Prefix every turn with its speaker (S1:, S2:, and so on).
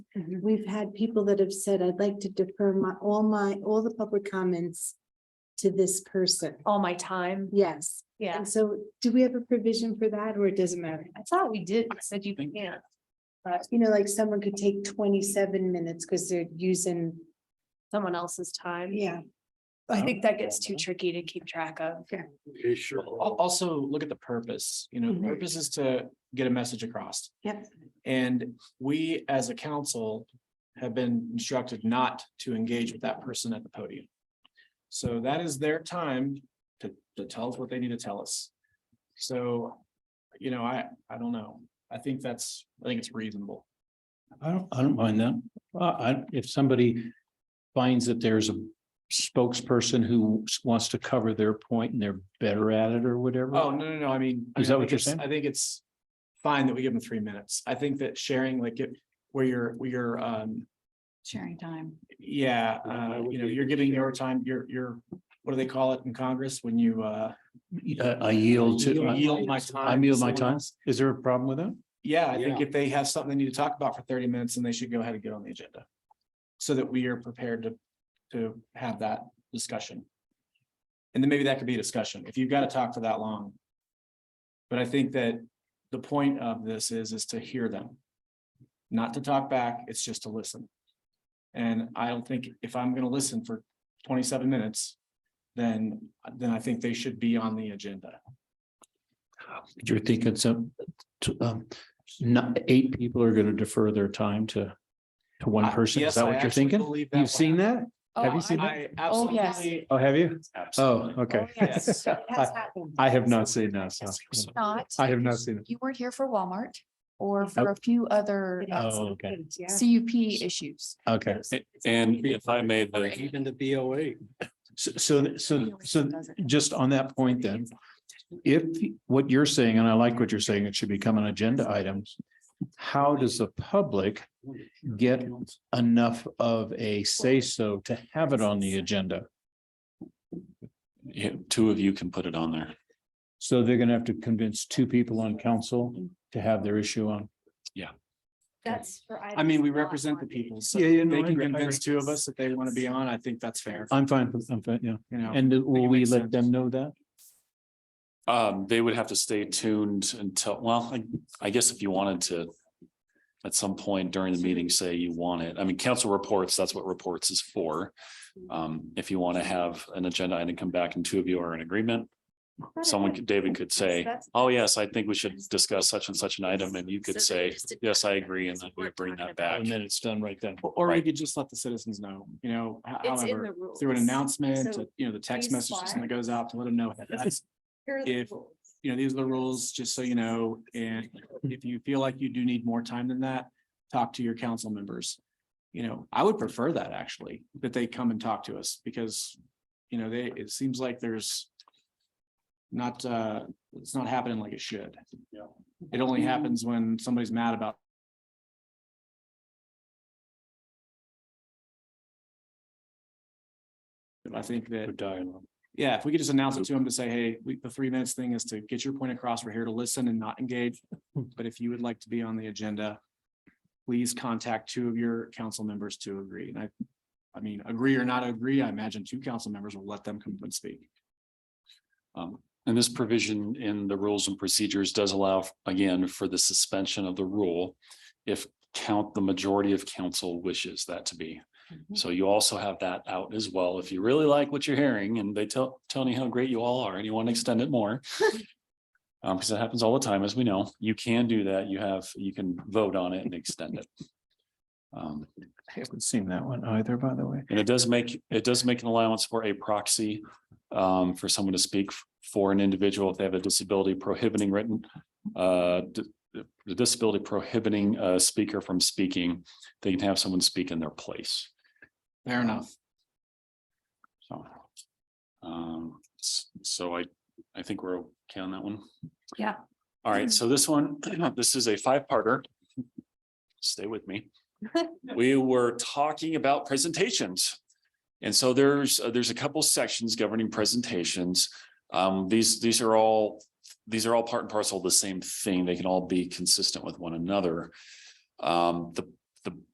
S1: Mhm.
S2: We've had people that have said, I'd like to defer my, all my, all the public comments to this person.
S1: All my time,
S2: Yes.
S1: yeah.
S2: And so do we have a provision for that or it doesn't matter?
S1: I thought we did, it said you can't. But
S2: You know, like someone could take twenty-seven minutes because they're using,
S1: someone else's time.
S2: yeah.
S1: I think that gets too tricky to keep track of.
S3: Yeah, sure.
S4: Al- Also, look at the purpose, you know,
S1: Mm-hmm.
S2: Mhm.
S4: purpose is to get a message across.
S2: Yep.
S4: And we, as a council, have been instructed not to engage with that person at the podium. So that is their time to, to tell us what they need to tell us. So, you know, I, I don't know. I think that's, I think it's reasonable.
S3: I don't, I don't mind that. Uh, I, if somebody finds that there's a spokesperson who s- wants to cover their point and they're better at it or whatever.
S4: Oh, no, no, no, I mean. I
S3: Is
S4: mean,
S3: that
S4: I
S3: what
S4: think
S3: you're
S4: it's-
S3: saying?
S4: I think it's fine that we give them three minutes. I think that sharing, like, if- where you're, where you're, um,
S1: Sharing time.
S4: Yeah,
S3: Yeah, I
S4: uh,
S3: would
S4: you know,
S3: be
S4: you're giving your time, your, your, what do they call it in Congress when you, uh?
S3: I I yield to,
S4: you
S3: I
S4: Yield my
S3: I
S4: time. to
S3: yield my
S4: someone
S3: time.
S4: else?
S3: Is there a problem with that?
S4: Yeah, I think
S3: Yeah.
S4: if they have something they need to talk about for thirty minutes, then they should go ahead and get on the agenda. So that we are prepared to, to have that discussion. And then maybe that could be a discussion, if you've got to talk for that long. But I think that the point of this is, is to hear them. Not to talk back, it's just to listen. And I don't think, if I'm gonna listen for twenty-seven minutes, then, then I think they should be on the agenda.
S3: You're thinking some, to, um, not, eight people are gonna defer their time to, to one
S4: I-
S3: person. Is
S4: yes,
S3: that
S4: I
S3: what you're
S4: actually
S3: thinking?
S4: believe that will
S3: You've seen
S4: happen.
S3: that? Have you seen that?
S4: I
S1: Oh, yes.
S4: absolutely.
S3: Oh, have you? Oh, okay.
S4: yes.
S2: It has
S3: I-
S2: happened.
S3: I have not seen that. so-
S5: Not,
S3: I have not seen it.
S5: you weren't here for Walmart or for a few other
S2: It
S5: uh,
S2: has
S3: Oh, okay.
S2: happened, Yeah.
S5: CUP issues.
S3: Okay.
S6: And if I may, the,
S3: Even the BOA. So, so, so, so just on that point then, if what you're saying, and I like what you're saying, it should become an agenda item. How does the public get enough of a say-so to have it on the agenda?
S6: yeah, two of you can put it on there.
S3: So they're gonna have to convince two people on council to have their issue on.
S1: That's for.
S4: I mean, we represent the people, so
S3: Yeah, yeah,
S4: if
S3: no, I
S4: they can
S3: agree, I
S4: convince
S3: agree.
S4: two of us that they want to be on, I think that's fair,
S3: I'm fine, with- I'm fine, yeah.
S4: you know.
S3: And will we
S4: makes
S3: let
S4: sense.
S3: them know that?
S6: Um, they would have to stay tuned until, well, I, I guess if you wanted to. At some point during the meeting, say you want it. I mean, council reports, that's what reports is for. Um, if you want to have an agenda item come back and two of you are in agreement. Someone, could- David could say, oh, yes, I think we should discuss such and such an item, and you could say, yes, I agree, and then we bring that back.
S3: And then it's done right then.
S4: Or we
S6: Right.
S4: could just let the citizens know, you know, ho-
S1: It's in
S4: however,
S1: the rules.
S4: through an announcement,
S1: So
S4: you know, the text
S1: these
S4: message system that goes out to let them know. hey, that's-
S1: Here are the
S4: if-
S1: rules.
S4: You know, these are the rules, just so you know, and if you feel like you do need more time than that, talk to your council members. You know, I would prefer that actually, that they come and talk to us because, you know, they, it seems like there's. Not, uh, it's not happening like it should. It only happens when somebody's mad about And I think that. Yeah, if we could just announce it to them to say, hey, we, the three minutes thing is to get your point across. We're here to listen and not engage. But if you would like to be on the agenda, please contact two of your council members to agree. And I, I mean, agree or not agree, I imagine two council members will let them come and speak.
S6: Um, and this provision in the rules and procedures does allow, again, for the suspension of the rule. If count, the majority of council wishes that to be. So you also have that out as well. If you really like what you're hearing and they tell, tell me how great you all are and you want to extend it more. Um, because that happens all the time, as we know, you can do that. You have, you can vote on it and extend it. Um,
S3: I haven't seen that one either, by the way.
S6: and it does make, it does make an allowance for a proxy um, for someone to speak f- for an individual if they have a disability prohibiting written uh, d- the disability prohibiting a speaker from speaking, they can have someone speak in their place.
S4: Fair enough.
S6: So. Um, s- so I, I think we're okay on that one.
S1: Yeah.
S6: All right, so this one, this is a five-parter. Stay with me. We were talking about presentations. And so there's, uh, there's a couple sections governing presentations. Um, these, these are all, these are all part and parcel of the same thing. They can all be consistent with one another. Um, the, the